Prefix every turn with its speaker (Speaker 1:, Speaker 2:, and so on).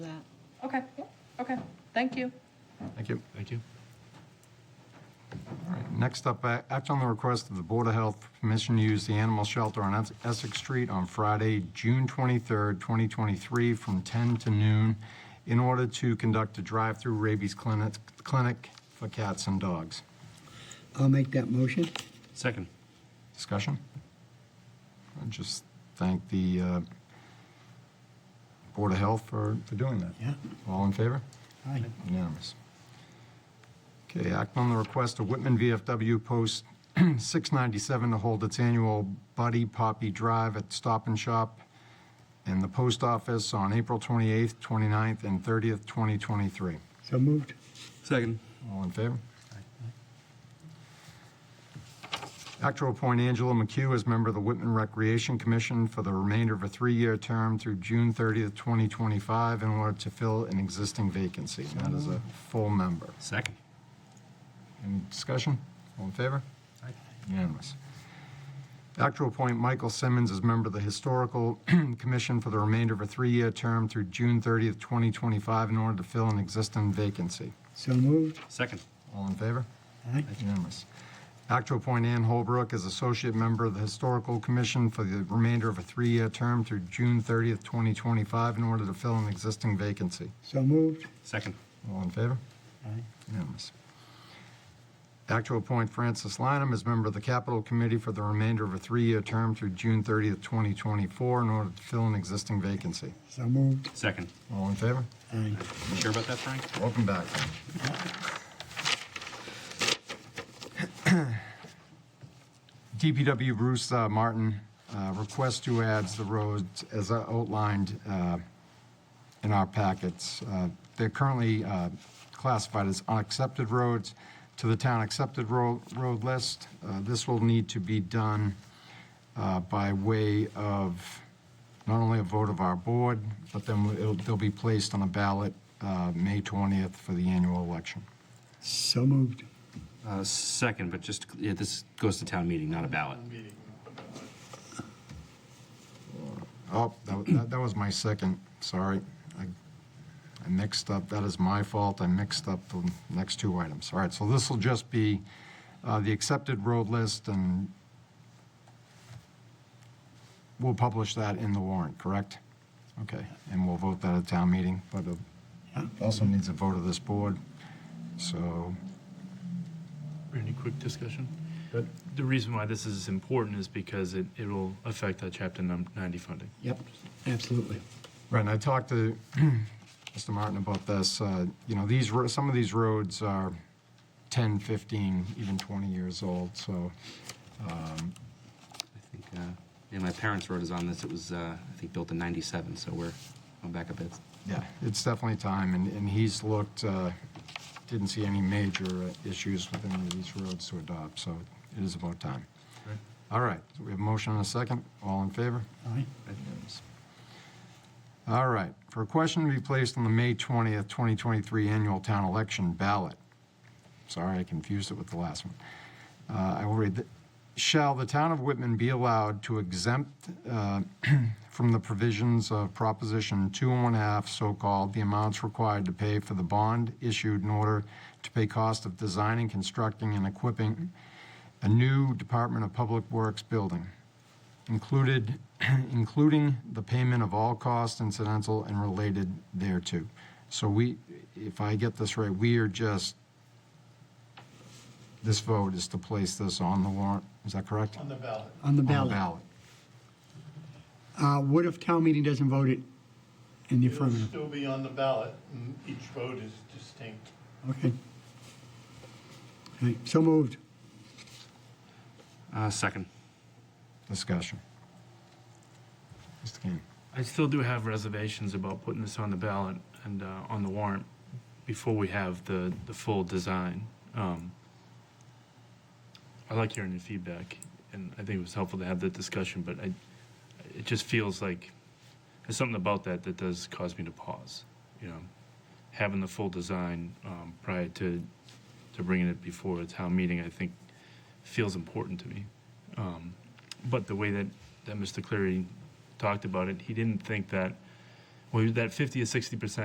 Speaker 1: Okay, okay, thank you.
Speaker 2: Thank you.
Speaker 3: Thank you.
Speaker 2: All right, Next up, a- act on the request of the Board of Health for permission to use the animal shelter on Es- Essex Street on Friday, June 23rd, 2023, from 10 to noon in order to conduct a drive-through rabies clinic clinic for cats and dogs.
Speaker 4: I'll make that motion.
Speaker 3: Second.
Speaker 2: Discussion? I just thank the uh, Board of Health for for doing that.
Speaker 4: Yeah.
Speaker 2: All in favor?
Speaker 4: Aye.
Speaker 2: Unanimous. Okay, act on the request of Whitman VFW Post 697 to hold its annual Buddy Poppy Drive at Stop and Shop in the post office on April 28th, 29th, and 30th, 2023.
Speaker 4: So moved.
Speaker 3: Second.
Speaker 2: All in favor? Act to appoint Angela McHugh as member of the Whitman Recreation Commission for the remainder of a three-year term through June 30th, 2025, in order to fill an existing vacancy. And That is a full member.
Speaker 3: Second.
Speaker 2: Any discussion? All in favor? Unanimous. Act to appoint Michael Simmons as member of the Historical Commission for the remainder of a three-year term through June 30th, 2025, in order to fill an existing vacancy.
Speaker 4: So moved.
Speaker 3: Second.
Speaker 2: All in favor?
Speaker 4: Aye.
Speaker 2: That's unanimous. Act to appoint Ann Holbrook as Associate Member of the Historical Commission for the remainder of a three-year term through June 30th, 2025, in order to fill an existing vacancy.
Speaker 4: So moved.
Speaker 3: Second.
Speaker 2: All in favor?
Speaker 4: Aye.
Speaker 2: Unanimous. Act to appoint Francis Lineham as member of the Capital Committee for the remainder of a three-year term through June 30th, 2024, in order to fill an existing vacancy.
Speaker 4: So moved.
Speaker 3: Second.
Speaker 2: All in favor?
Speaker 4: Aye.
Speaker 3: You sure about that, Frank?
Speaker 2: Welcome back. DPW Bruce uh, Martin uh, requests to add the roads as outlined uh, in our packets. Uh, They're currently uh, classified as unaccepted roads to the town accepted road, road list. Uh, This will need to be done uh, by way of not only a vote of our board, but then it'll, they'll be placed on a ballot uh, May 20th for the annual election.
Speaker 4: So moved.
Speaker 3: Uh, second, but just, yeah, this goes to town meeting, not a ballot.
Speaker 2: Oh, that- that, that was my second, sorry. I I mixed up, that is my fault, I mixed up the next two items. All right, so this will just be uh, the accepted road list, and we'll publish that in the warrant, correct? Okay, and we'll vote that at town meeting, but it also needs a vote of this board, so,
Speaker 5: Any quick discussion? The reason why this is important is because it, it'll affect that chapter num- ninety funding.
Speaker 4: Yep. Absolutely.
Speaker 2: Right, and I talked to Mr. Martin about this, uh, you know, these, ro- some of these roads are 10, 15, even 20 years old, so,
Speaker 3: I think, uh, yeah, my parents' road is on this. It was, uh, I think, built in 97, so we're going back a bit.
Speaker 2: yeah, it's definitely time, and, and he's looked, uh, didn't see any major uh, issues with any of these roads to adopt, so it is about time. All right, so we have a motion and a second, all in favor?
Speaker 4: Aye.
Speaker 2: All right, for a question to be placed on the May 20th, 2023 annual town election ballot. Sorry, I confused it with the last one. Uh, I will read, the- shall the town of Whitman be allowed to exempt uh, from the provisions of Proposition 2 and 1 half, so-called, the amounts required to pay for the bond issued in order to pay cost of designing, constructing, and equipping a new Department of Public Works building? included, including the payment of all costs incidental and related thereto. So we, if I get this right, we are just, this vote is to place this on the warrant, is that correct? On the
Speaker 4: On the ballot. Uh, What if town meeting doesn't vote it in the
Speaker 6: It'll
Speaker 4: affirmative?
Speaker 6: still be on the ballot, and each vote is distinct.
Speaker 4: Okay. All right. So moved.
Speaker 3: Uh, second.
Speaker 2: Discussion. Mr. Kane.
Speaker 5: I still do have reservations about putting this on the ballot and, uh, on the warrant before we have the, the full design. Um, I like hearing your feedback, and I think it was helpful to have that discussion, but I, it just feels like, there's something about that that does cause me to pause, you know? Having the full design, um, prior to, to bringing it before a town meeting, I think feels important to me. Um, but the way that, that Mr. Cleary talked about it, he didn't think that, well, that 50 or 60 percent